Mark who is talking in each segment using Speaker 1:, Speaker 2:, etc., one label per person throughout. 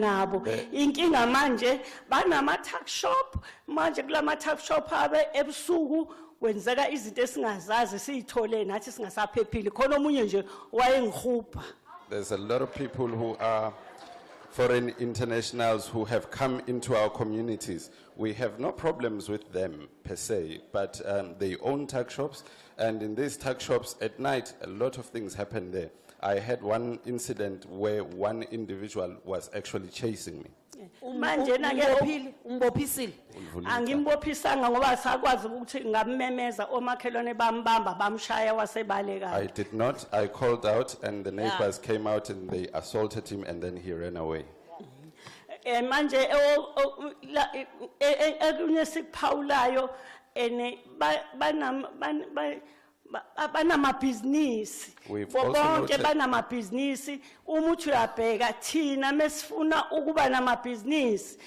Speaker 1: nabo inkinga manje banama-tuck shop manje kulama-tuck shop abe ebusuku kwenzeka izinto esingazazi siyithole nathi singasaphephile khona omunye nje wayengihupha
Speaker 2: There's a lot of people who are foreign internationals who have come into our communities. We have no problems with them per se, but um, they own tuck shops, and in these tuck shops at night, a lot of things happen there. I had one incident where one individual was actually chasing me.
Speaker 1: manje na-ke
Speaker 3: umbophile umbophisile
Speaker 1: angimbophisanga ngoba sakwazi ukuthi ngamemeza omakhelwane bambamba bamshaya
Speaker 2: I
Speaker 1: wasebalekayo
Speaker 2: did not. I called out, and the neighbors came out and they assaulted him, and then he ran away.
Speaker 1: um manje e- o- la- e- e- ekunye sikuphawulayo and banamabhizinisi
Speaker 2: We've
Speaker 1: Bo
Speaker 2: also
Speaker 1: bonke
Speaker 2: noted-
Speaker 1: banamabhizinisi uma uthi uyabheka thina mesifuna ukuba namabhizinisi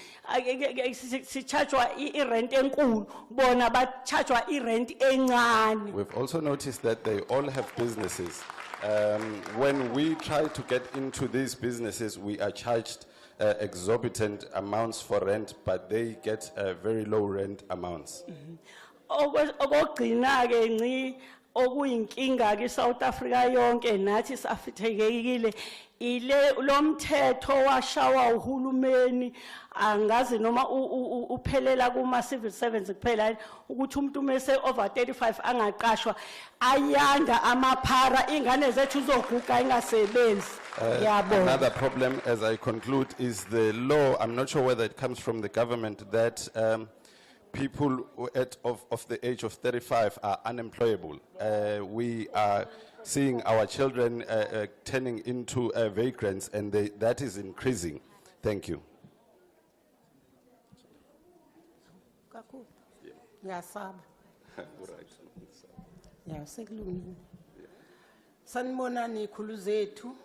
Speaker 1: sitshajwa irenti enkulu bona batshajwa irenti encane
Speaker 2: We've also noticed that they all have businesses. Um, when we try to get into these businesses, we are charged uh, exorbitant amounts for rent, but they get uh, very low rent amounts.
Speaker 1: okugcina ke nci okuyinkinga ke South Africa yonke nathi safithekekile ile lomthetho washawa uhulumeni angazi noma u- u- u- uphelela kuma civil servants kuphela ukuthi umuntu mase over 35 angaqashwa ayanda amaphara ingane zethu zoguga ingasebenzi yabo
Speaker 2: Eh, Another problem, as I conclude, is the law. I'm not sure whether it comes from the government that um, people who at, of, of the age of 35 are unemployable. Uh, we are seeing our children uh, uh, turning into uh, vagrants, and they, that is increasing. Thank you.
Speaker 3: kakhulu ngiyasaba ya sekulungile sanibonani ikhulu zethu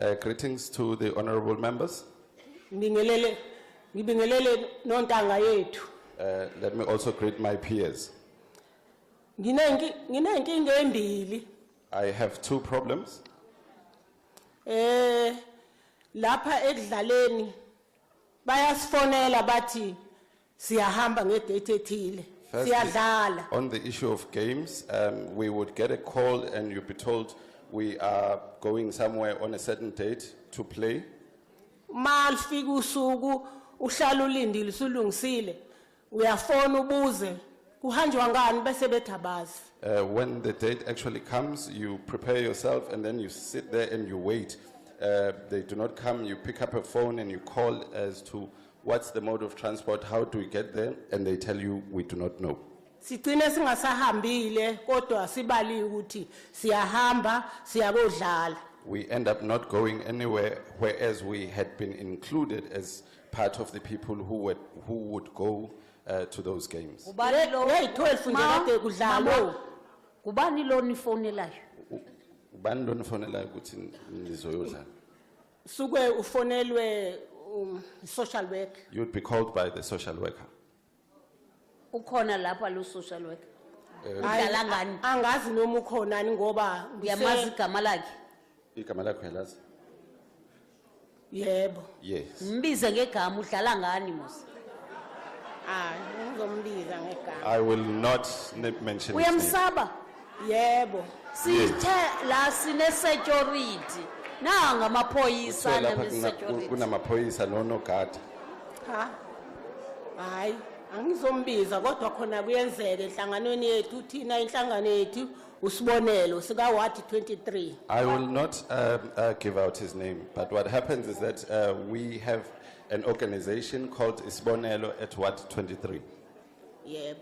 Speaker 2: Uh, greetings to the honorable members.
Speaker 3: ngibingelele ngibingelele nontanga yethu
Speaker 2: Uh, let me also greet my peers.
Speaker 3: Nginenki- nginenkinga embili
Speaker 2: I have two problems.
Speaker 3: eh lapha ekudlaleni bayasifonela bathi siyahamba ngedate ethile
Speaker 2: Firstly,
Speaker 3: siyadlala
Speaker 2: On the issue of games, um, we would get a call and you'd be told we are going somewhere on a certain date to play.
Speaker 3: malifika usuku uhlala ulindile usulungisile uyafona ubuze kuhanjwa ngani bese bethabazi
Speaker 2: Uh, when the date actually comes, you prepare yourself and then you sit there and you wait. Uh, they do not come, you pick up a phone and you call as to what's the mode of transport, how do we get there, and they tell you we do not know.
Speaker 3: sigcine singasahambile kodwa sibali ukuthi siyahamba siyakodlala
Speaker 2: We end up not going anywhere, whereas we had been included as part of the people who, were, who would go uh, to those games.
Speaker 4: Ngubani lo?
Speaker 3: Ngeyi-twelve nje
Speaker 4: Ma-
Speaker 3: kade kudlalwa
Speaker 4: mama, Ngubani lo nifonelayo?
Speaker 2: ubani lonifonelayo ukuthi nizoyodlala
Speaker 3: suke ufonelwe um, social worker
Speaker 2: you'd be called by the social worker
Speaker 4: Ukhona lapha lo social worker.
Speaker 3: Hayi,
Speaker 4: Eh. Udlala ngani?
Speaker 3: angazi noma ukhonani ngoba ngise-
Speaker 4: Uyamazi igama lakhe?
Speaker 2: igama lakho yalazi
Speaker 3: yebo
Speaker 2: yes
Speaker 4: Mbize ngegama udlala ngani mos?
Speaker 3: hayi ngizombiza ngegama
Speaker 2: i will not n- mention his name.
Speaker 4: Uyamsaba?
Speaker 3: yebo
Speaker 4: Sithe la sine security. Nanga
Speaker 2: Kuthiwa
Speaker 4: amaphoyisa
Speaker 2: lapha kuna- ku-
Speaker 4: security.
Speaker 2: kunamaphoyisa nonogada
Speaker 3: ha hayi angizombiza kodwa khona kuyenzeka enhlanganweni yethu thina inhlangano yethu usibonelo sika-ward 23
Speaker 2: i will not um, uh, give out his name but what happens is that uh, we have an organization called isibonelo at ward 23
Speaker 3: yebo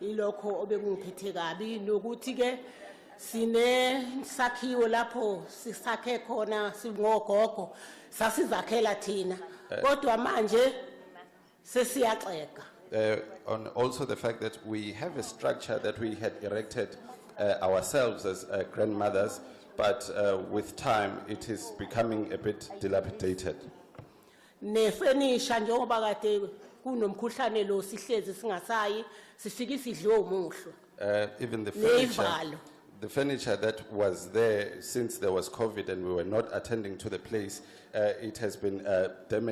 Speaker 3: ilokho obekungiphethe kabi nokuthi-ke sinesakhiwo lapho sisakhe khona singogogo sasizakhela thina kodwa manje sesiyaxega
Speaker 2: uh, on also the fact that we have a structure that we had erected uh, ourselves as uh, grandmothers, but uh, with time it is becoming a bit dilapidated.
Speaker 3: nefenisha njengoba kade kunomkhuhlane lo sihlezi singasayi sifike sidle umuhlwa
Speaker 2: Uh, even the
Speaker 3: Neyivalo.
Speaker 2: furniture, the furniture that was there since there was COVID and we were not attending to the place, uh, it has been uh, damaged.